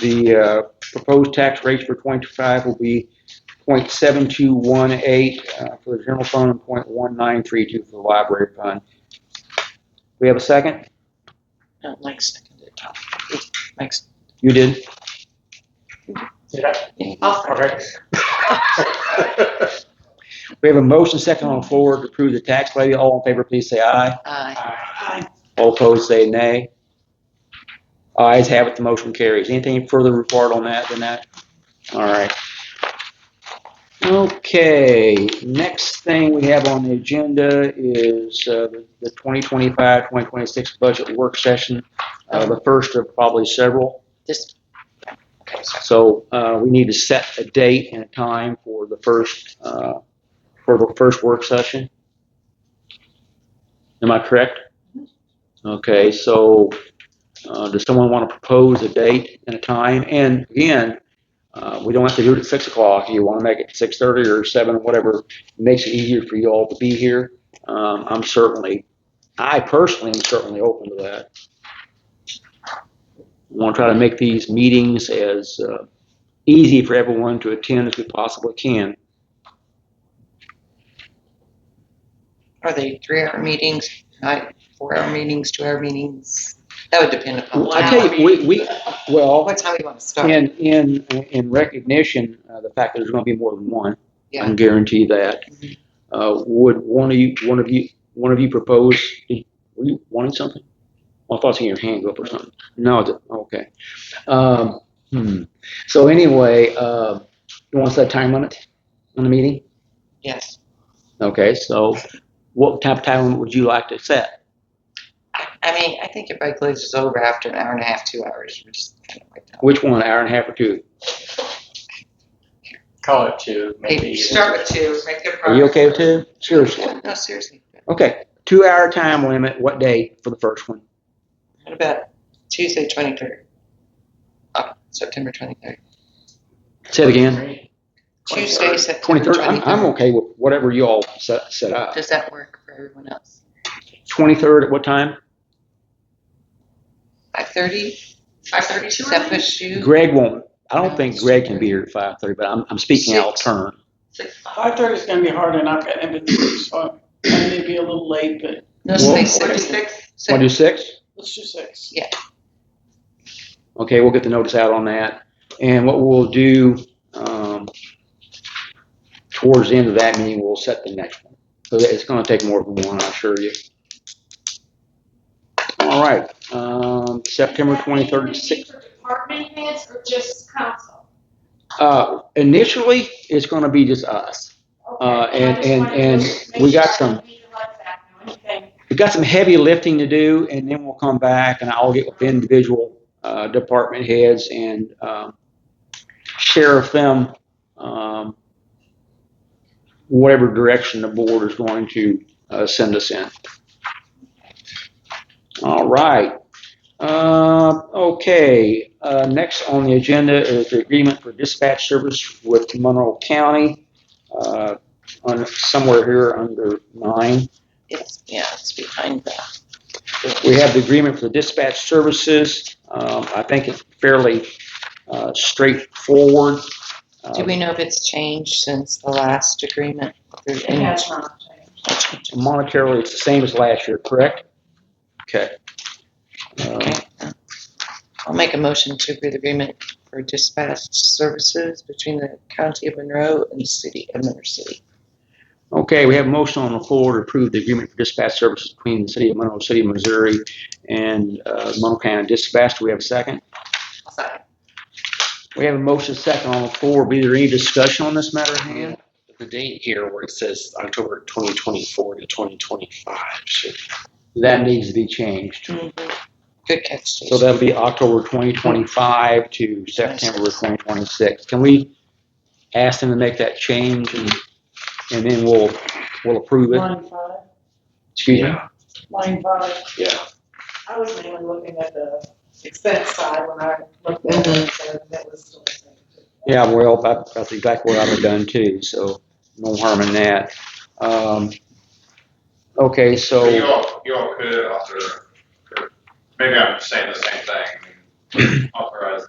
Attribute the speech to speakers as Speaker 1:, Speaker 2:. Speaker 1: The uh, proposed tax rates for 25 will be .7218 uh, for the general fund and .1932 for the library fund. We have a second?
Speaker 2: No, Mike seconded it. Mike's.
Speaker 1: You did?
Speaker 2: Oh,
Speaker 3: Okay.
Speaker 1: We have a motion second on the floor to approve the tax levy. All in favor, please say aye.
Speaker 2: Aye.
Speaker 1: All opposed, say nay. Ayes have it, the motion carries. Anything further report on that than that? All right. Okay, next thing we have on the agenda is uh, the 2025-2026 budget work session, uh, the first of probably several.
Speaker 2: This. Okay, sorry.
Speaker 1: So uh, we need to set a date and a time for the first, uh, for the first work session. Am I correct? Okay, so uh, does someone want to propose a date and a time? And again, uh, we don't have to do it at 6 o'clock. You want to make it 6:30 or 7, whatever makes it easier for you all to be here. Um, I'm certainly, I personally am certainly open to that. We want to try to make these meetings as uh, easy for everyone to attend as we possibly can.
Speaker 2: Are they three-hour meetings, night, four-hour meetings, two-hour meetings? That would depend upon.
Speaker 1: Well, I tell you, we, we well,
Speaker 2: What time you want to start?
Speaker 1: in in in recognition uh, the fact that there's going to be more than one, I
Speaker 2: Yeah.
Speaker 1: can guarantee that.
Speaker 2: Mhm.
Speaker 1: Uh, would one of you, one of you, one of you propose? Were you wanting something? Well, I thought I seen your hand go up or something. No, it- okay. Um, hmm. So anyway, uh, you want to set a time limit on the meeting?
Speaker 2: Yes.
Speaker 1: Okay, so what type of time would you like to set?
Speaker 2: I I mean, I think if I glazes over after an hour and a half, two hours, we're just kind of like,
Speaker 1: Which one, hour and a half or two?
Speaker 3: Call it two,
Speaker 2: maybe
Speaker 3: maybe.
Speaker 2: start with two, make good
Speaker 1: Are you okay with two? Seriously?
Speaker 2: No, seriously.
Speaker 1: Okay, two hour time limit, what day for the first one?
Speaker 2: What about Tuesday, twenty-third? Uh, September twenty-third.
Speaker 1: Say it again.
Speaker 2: Tuesday,
Speaker 3: 23rd.
Speaker 2: September
Speaker 1: Twenty-third, I'm, I'm
Speaker 2: twenty-third.
Speaker 1: okay with whatever you all set, set up.
Speaker 2: Does that work for everyone else?
Speaker 1: Twenty-third at what time?
Speaker 2: Five thirty? Five thirty, does that push you?
Speaker 1: Greg won't, I don't think Greg can be here at five thirty, but I'm, I'm speaking out of
Speaker 2: Six.
Speaker 1: turn.
Speaker 2: Six-
Speaker 3: Five thirty is gonna be hard enough, and it's, so I may be uh, a little late, but
Speaker 2: No,
Speaker 1: Well-
Speaker 2: say six.
Speaker 1: Want to do
Speaker 2: Six.
Speaker 1: six?
Speaker 3: let's do six.
Speaker 1: Okay, we'll get the notice out on that. And what we'll do, um, towards the end of that meeting, we'll set the next one. So that- it's gonna take more than one, I assure you. All right, um, September twenty-third, six,
Speaker 4: For department heads or just council?
Speaker 1: uh, initially, it's gonna be just us.
Speaker 4: Okay,
Speaker 1: Uh, and-
Speaker 4: I just
Speaker 1: and-
Speaker 4: wanted to
Speaker 1: and
Speaker 4: make
Speaker 1: we
Speaker 4: sure
Speaker 1: got
Speaker 4: I
Speaker 1: some-
Speaker 4: didn't leave the lights out or anything.
Speaker 1: We've got some heavy lifting to do, and then we'll come back and I'll get with individual uh, department heads and um, share with them um, whatever direction the board is going to uh, send us in. All right. Uh, okay. Uh, next on the agenda is the agreement for dispatch service with Monroe County. Uh, on somewhere here under nine.
Speaker 2: It's, yeah, it's behind that.
Speaker 1: We have the agreement for the dispatch services. Um, I think it's fairly uh, straightforward. Uh,
Speaker 2: Do we know if it's changed since the last agreement? If there's
Speaker 4: It
Speaker 2: any
Speaker 4: has not
Speaker 2: change?
Speaker 4: changed.
Speaker 1: Monetarily, it's the same as last year, correct? Okay. Uh,
Speaker 2: Okay. I'll make a motion to approve the agreement for dispatch services between the county of Monroe and the city of Monroe City.
Speaker 1: Okay, we have a motion on the floor to approve the agreement for dispatch services between the city of Monroe City, Missouri and uh, Monroe County Dispatch. Do we have a second? We have a motion second on the floor. Be there any discussion on this matter at hand?
Speaker 5: The date here where it says October 2024 to 2025 should
Speaker 1: That needs to be changed.
Speaker 2: Good catch,
Speaker 1: So
Speaker 2: Stacy.
Speaker 1: that'll be October 2025 to September 2026. Can we ask them to make that change and, and then we'll, we'll approve it?
Speaker 6: Line five,
Speaker 1: Excuse me?
Speaker 6: line five.
Speaker 5: Yeah.
Speaker 6: I was mainly looking at the expense side when I looked at it, so that was still the same.
Speaker 1: Yeah, well, that- that's exactly what I've have done too, so no harm in that. Um, Okay,
Speaker 7: So you
Speaker 1: so,
Speaker 7: all, you all could author, could- maybe I'm saying the same thing, authorize